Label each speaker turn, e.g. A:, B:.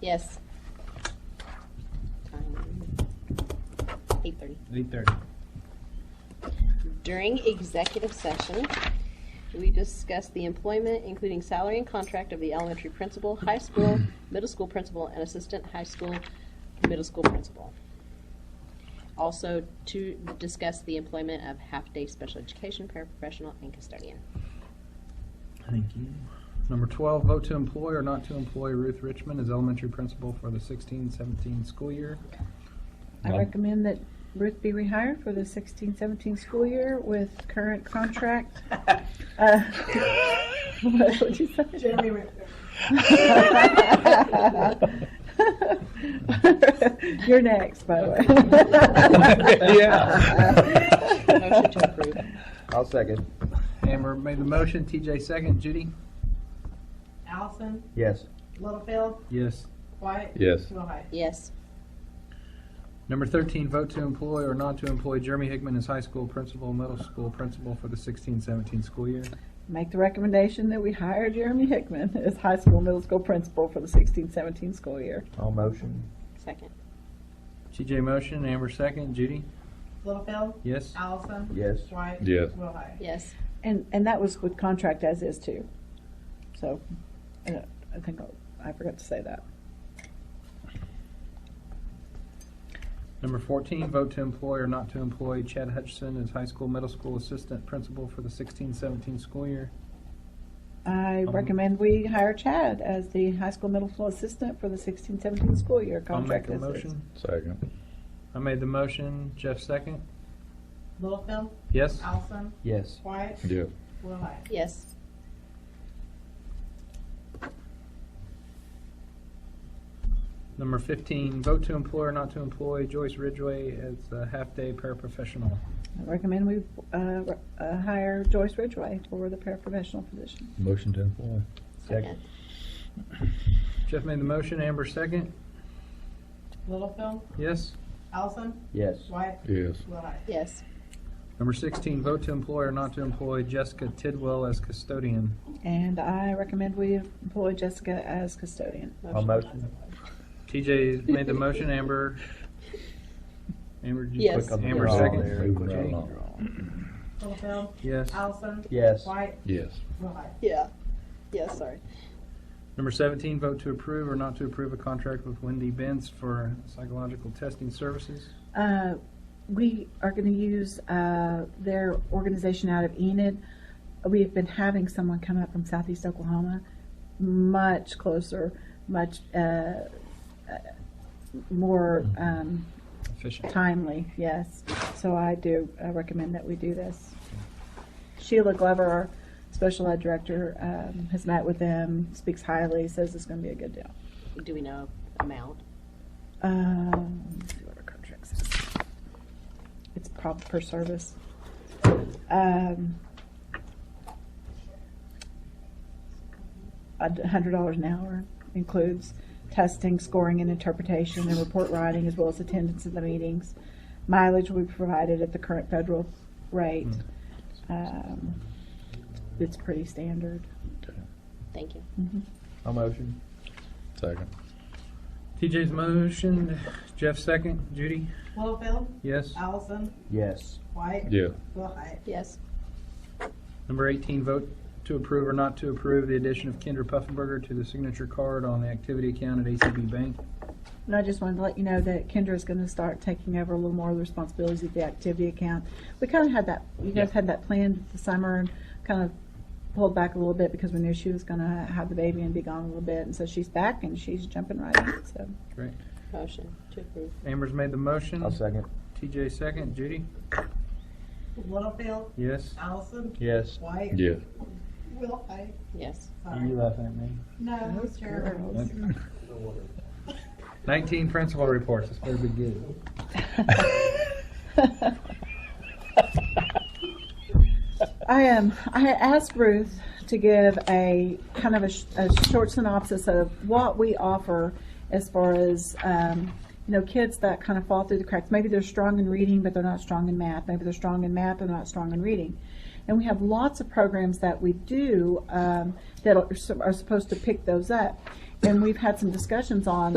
A: Yes. Eight thirty.
B: Eight thirty.
A: During executive session, we discussed the employment, including salary and contract of the elementary principal, high school, middle school principal, and assistant high school, middle school principal. Also to discuss the employment of half-day special education, paraprofessional, and custodian.
B: Thank you. Number twelve, vote to employ or not to employ Ruth Richmond as elementary principal for the 16-17 school year.
C: I
D: Well-
C: recommend that Ruth be rehired for the 16-17 school year with current contract. Uh, What would you say?
E: Jeremy Ritter.
C: You're next, by the way.
D: Yeah.
A: Motion to approve.
D: I'll second.
B: Amber made the motion, TJ second, Judy?
E: Allison,
D: Yes.
E: Littlefield,
B: Yes.
E: Wyatt.
D: Yes.
E: Willhite.
A: Yes.
B: Number thirteen, vote to employ or not to employ Jeremy Hickman as high school principal, middle school principal for the 16-17 school year.
C: Make the recommendation that we hire Jeremy Hickman as high school, middle school principal for the 16-17 school year.
D: All motion.
A: Second.
B: TJ motion, Amber second, Judy?
E: Littlefield,
B: Yes?
E: Allison.
D: Yes.
E: Wyatt.
F: Yes.
E: Willhite.
A: Yes.
C: And, and that was with contract as is too. So, I don't- I think, I'll- I forgot to say that.
B: Number fourteen, vote to employ or not to employ Chad Hutchison as high school, middle school assistant principal for the 16-17 school year.
C: I
B: Um,
C: recommend we hire Chad as the high school middle school assistant for the sixteen seventeen school year
B: I'll make
C: contract.
B: a
C: as is.
B: motion.
F: Second.
B: I made the motion, Jeff second,
E: Littlefield,
B: yes?
E: Allison,
D: Yes.
E: Wyatt.
F: Yeah.
E: Willhite.
A: Yes.
B: Number 15, vote to employ or not to employ Joyce Ridgway as a half-day paraprofessional.
C: I recommend we, uh, re- uh, hire Joyce Ridgway for the paraprofessional position.
F: Motion to employ.
D: Second.
B: Jeff made the motion, Amber second.
E: Littlefield,
B: Yes?
E: Allison,
D: Yes.
E: Wyatt.
F: Yes.
E: Willhite.
A: Yes.
B: Number 16, vote to employ or not to employ Jessica Tidwell as custodian.
C: And I recommend we employ Jessica as custodian.
D: All motion.
B: TJ made the motion, Amber. Amber, did you
A: Yes.
B: click on the Amber
D: draw
B: second?
D: there.
B: Click on
D: Moving
B: Judy.
D: right along.
E: Littlefield,
B: Yes.
E: Allison.
D: Yes.
E: Wyatt.
F: Yes.
E: Willhite.
A: Yeah. Yes, sorry.
B: Number 17, vote to approve or not to approve a contract with Wendy Benz for psychological testing services.
C: Uh, we are gonna use, uh, their organization out of Enid. We've been having someone come up from southeast Oklahoma, much closer, much, uh, uh, more, um,
B: Efficient.
C: timely, yes. So I do uh, recommend that we do this. Sheila Glover, our special ed director, um, has met with them, speaks highly, says it's going to be a good deal.
A: Do we know amount?
C: Um, let's see what our contract says. It's prob per service. Um, a d- hundred dollars an hour includes testing, scoring, and interpretation, and report writing, as well as attendance at the meetings. Mileage will be provided at the current federal rate. Um, it's pretty standard. Mm-hmm.
F: Okay.
A: Thank you.
D: All motion.
F: Second.
B: TJ's motion, Jeff second, Judy?
E: Littlefield,
B: Yes.
E: Allison,
D: Yes.
E: Wyatt.
F: Yeah.
E: Willhite.
A: Yes.
B: Number 18, vote to approve or not to approve the addition of Kendra Puffenberger to the signature card on the activity account at ACB Bank.
C: And I just wanted to let you know that Kendra is going to start taking over a little more of the responsibilities of the activity account. We kind of had that, you guys
B: Yeah.
C: had that planned the summer and kind of pulled back a little bit because we knew she was going to have the baby and be gone a little bit. And so she's back and she's jumping right in. So
B: Great.
A: Motion to approve.
B: Amber's made the motion.
D: I'll second.
B: TJ second. Judy?
E: Littlefield,
B: Yes.
E: Oh. Allison,
D: Yes.
E: Wyatt.
F: Yeah.
E: Willhite.
A: Yes.
E: Sorry.
B: laughing at me?
E: No, it's Jeremy.
B: 19, principal reports. This better be good.
C: I am. I had asked Ruth to give a kind of a, sh- a short synopsis of what we offer as far as um, you know kids that kind of fall through the cracks. Maybe they're strong in reading, but they're not strong in math. Maybe they're strong in math, but not strong in reading. And we have lots of programs that we do um, that are, are supposed to pick those up. And we've had some discussions on